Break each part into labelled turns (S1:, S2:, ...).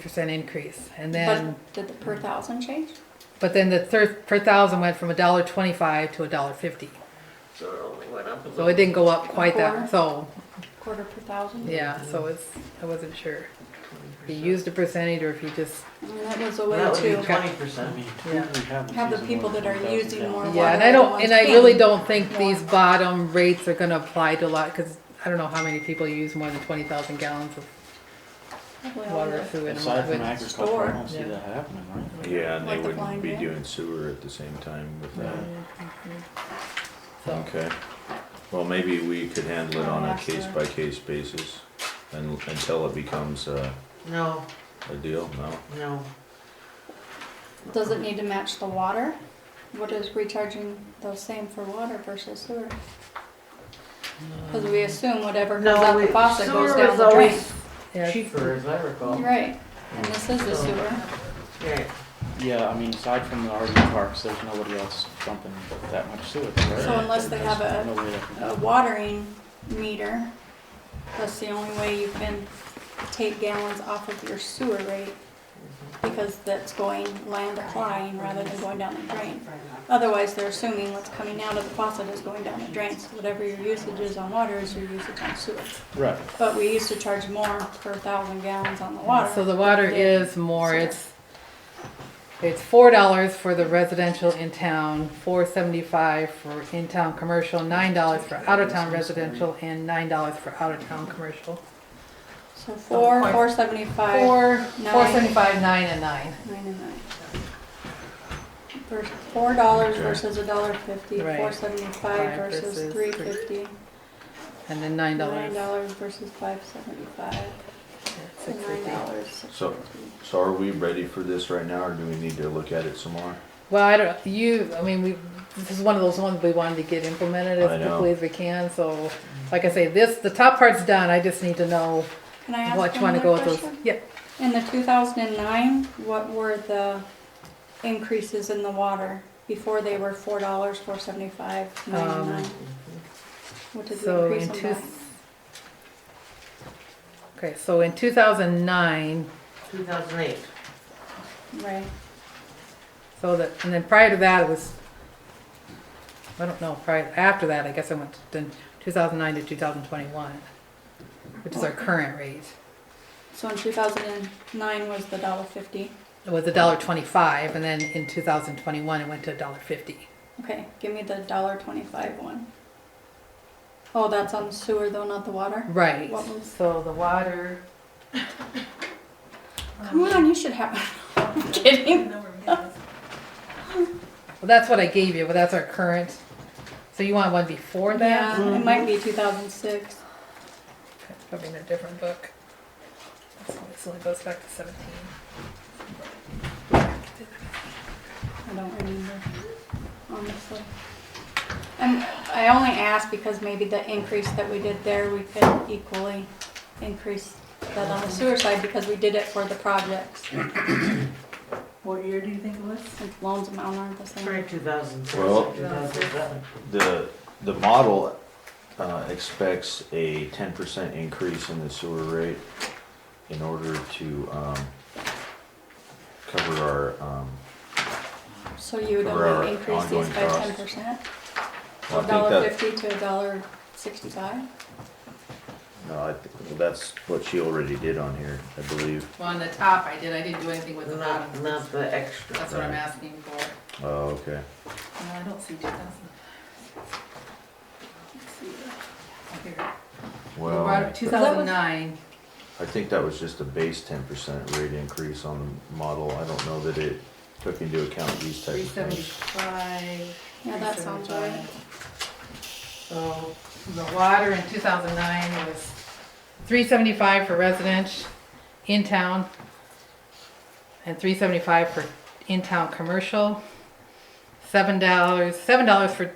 S1: percent increase, and then,
S2: But did the per thousand change?
S1: but then the third per thousand went from a dollar twenty-five to a dollar fifty.
S3: So it only went up a
S1: So it
S3: little.
S1: didn't go up quite that, so,
S2: Quarter per thousand?
S1: yeah, so it's, I wasn't sure. If you used a percentage or if you just,
S2: I mean, that was a way
S3: That would be
S2: to
S3: twenty
S4: I
S3: percent.
S4: mean,
S1: Yeah.
S4: we haven't
S2: have the
S4: used
S2: people
S4: more
S2: that are
S4: than
S2: using
S4: 1,000
S2: more
S4: gallons.
S2: water.
S1: yeah, and I don't,
S2: the
S1: and
S2: ones
S1: I really
S2: paying.
S1: don't think
S2: Yeah.
S1: these bottom rates are gonna apply to a lot, cause I don't know how many people use more than twenty thousand gallons of
S2: Probably all
S1: water or
S2: the-
S1: food in a
S4: Aside from
S1: month.
S4: agriculture, I
S2: store.
S4: don't see
S1: Yeah.
S4: that happening, right?
S5: Yeah, and
S2: Like
S5: they
S2: the blind
S5: wouldn't be
S2: man.
S5: doing sewer at the same time with that.
S1: So,
S5: Okay. Well, maybe we could handle it
S2: I'll
S5: on a
S2: ask her.
S5: case by case basis and until it becomes a,
S3: No,
S5: a deal, no?
S3: no,
S2: Does it need to match the water? What is recharging the same for water versus sewer? Cause we assume whatever comes
S3: Um, No,
S2: out the
S3: we-
S2: faucet
S3: sewer
S2: goes down
S3: was
S2: the drain.
S3: always
S1: yeah,
S3: cheaper, as I recall.
S2: Right, and this is the
S3: So-
S2: sewer.
S3: Right.
S4: Yeah, I mean, aside from the RV parks, there's nobody else dumping that much sewage, right?
S2: So unless they have
S4: There's
S2: a- oh,
S4: no way that can-
S2: a watering meter. That's the only way you can take gallons off of your sewer rate because that's going land applying rather than going down the drain. Otherwise, they're assuming what's coming out of the faucet is going down the drain. So whatever your usage is on water is your usage on sewer.
S4: Right,
S2: But we used to charge more per thousand gallons on the water.
S1: So the water
S2: than
S1: is more,
S2: sewer.
S1: it's, it's four dollars for the residential in town, four seventy-five for in-town commercial, nine dollars for out-of-town residential, and nine dollars for out-of-town commercial.
S2: So four,
S1: Four.
S2: four seventy-five.
S1: Four,
S2: Nine.
S1: four seventy-five, nine and nine,
S2: Nine and nine. Vers- Four dollars
S5: Okay.
S2: versus a dollar fifty,
S1: Right.
S2: four seventy-five
S1: Five
S2: versus
S1: versus
S2: three
S1: three.
S2: fifty,
S1: and then nine
S2: nine
S1: dollars.
S2: dollars versus five seventy-five,
S1: Six
S2: and nine
S1: fifty.
S2: dollars.
S5: So- So are we ready for this right now or do we need to look at it some more?
S1: Well, I don't, you, I mean, we, this is one of those ones we wanted to get implemented
S5: I
S1: as
S5: know.
S1: quickly as we can, so, like I say, this, the top part's done, I just need to know
S2: Can I
S1: what
S2: ask
S1: you wanna
S2: one
S1: go
S2: more
S1: with those.
S2: question?
S1: Yeah,
S2: In the two thousand and nine, what were the increases in the water? Before they were four dollars, four seventy-five, nine and
S1: Um,
S2: nine. What did we
S1: So in
S2: increase
S1: two.
S2: them
S1: Okay, so in two thousand nine,
S3: Two thousand eight.
S2: by? Right,
S1: so that, and then prior to that, it was, I don't know, prior, after that, I guess I went to two thousand nine to two thousand twenty-one, which is our current rate.
S2: so in two thousand and nine was the dollar fifty.
S1: It was a dollar twenty-five, and then in two thousand twenty-one, it went to a dollar fifty.
S2: Okay, give me the dollar twenty-five one. Oh, that's on the sewer though, not the water?
S1: Right,
S2: What was-
S1: so the water.
S2: Come on, you should have, I'm kidding.
S1: Well, that's what I gave you, but that's our current. So you want one before that? Mm-hmm.
S2: Yeah, it might be two thousand six.
S1: It's Probably in a different book. This one- This only goes back to seventeen.
S2: I don't remember, honestly. And I only asked because maybe the increase that we did there, we could equally increase that on the sewer side because we did it for the projects.
S6: What year do you think it was?
S2: Since Loans amount aren't the same.
S3: Probably two thousand six,
S5: Well-
S3: two thousand seven.
S5: The, the model, uh, expects a ten percent increase in the sewer rate in order to, um, cover our, um,
S2: So you would
S5: For our
S2: only increase these
S5: ongoing
S2: by ten
S5: costs.
S2: percent?
S5: well, I
S2: A
S5: think
S2: dollar
S5: that-
S2: fifty to a dollar sixty-five?
S5: No, I think, that's what she already did on here, I believe.
S1: Well, on the top I did, I didn't do anything with the bottom.
S3: Not, not the extra.
S1: That's what I'm asking for.
S5: Oh, okay.
S1: No, I don't see two thousand. Here, we brought
S5: Well,
S1: up two thousand nine.
S5: I think that was just a base ten percent rate increase on the model. I don't know that it took into account these types
S1: Three
S5: of things.
S1: seventy-five.
S2: Yeah, that sounds right.
S1: So the water in two thousand nine was three seventy-five for residents in town and three seventy-five for in-town commercial. Seven dollars, seven dollars for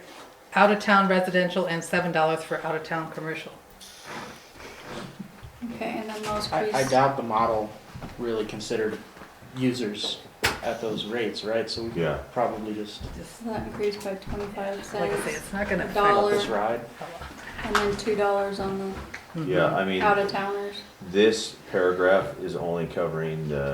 S1: out-of-town residential and seven dollars for out-of-town commercial.
S2: Okay, and then those
S4: I, I
S2: priests,
S4: doubt the model really considered users at those rates, right? So we could
S5: Yeah,
S4: probably just
S2: so that increased by twenty-five
S1: Like I say,
S2: cents,
S1: it's not gonna affect.
S4: let
S2: Dollar.
S4: this ride.
S2: and then two dollars on
S5: yeah, I
S2: the
S5: mean,
S2: out-of-towners.
S5: this paragraph is only covering the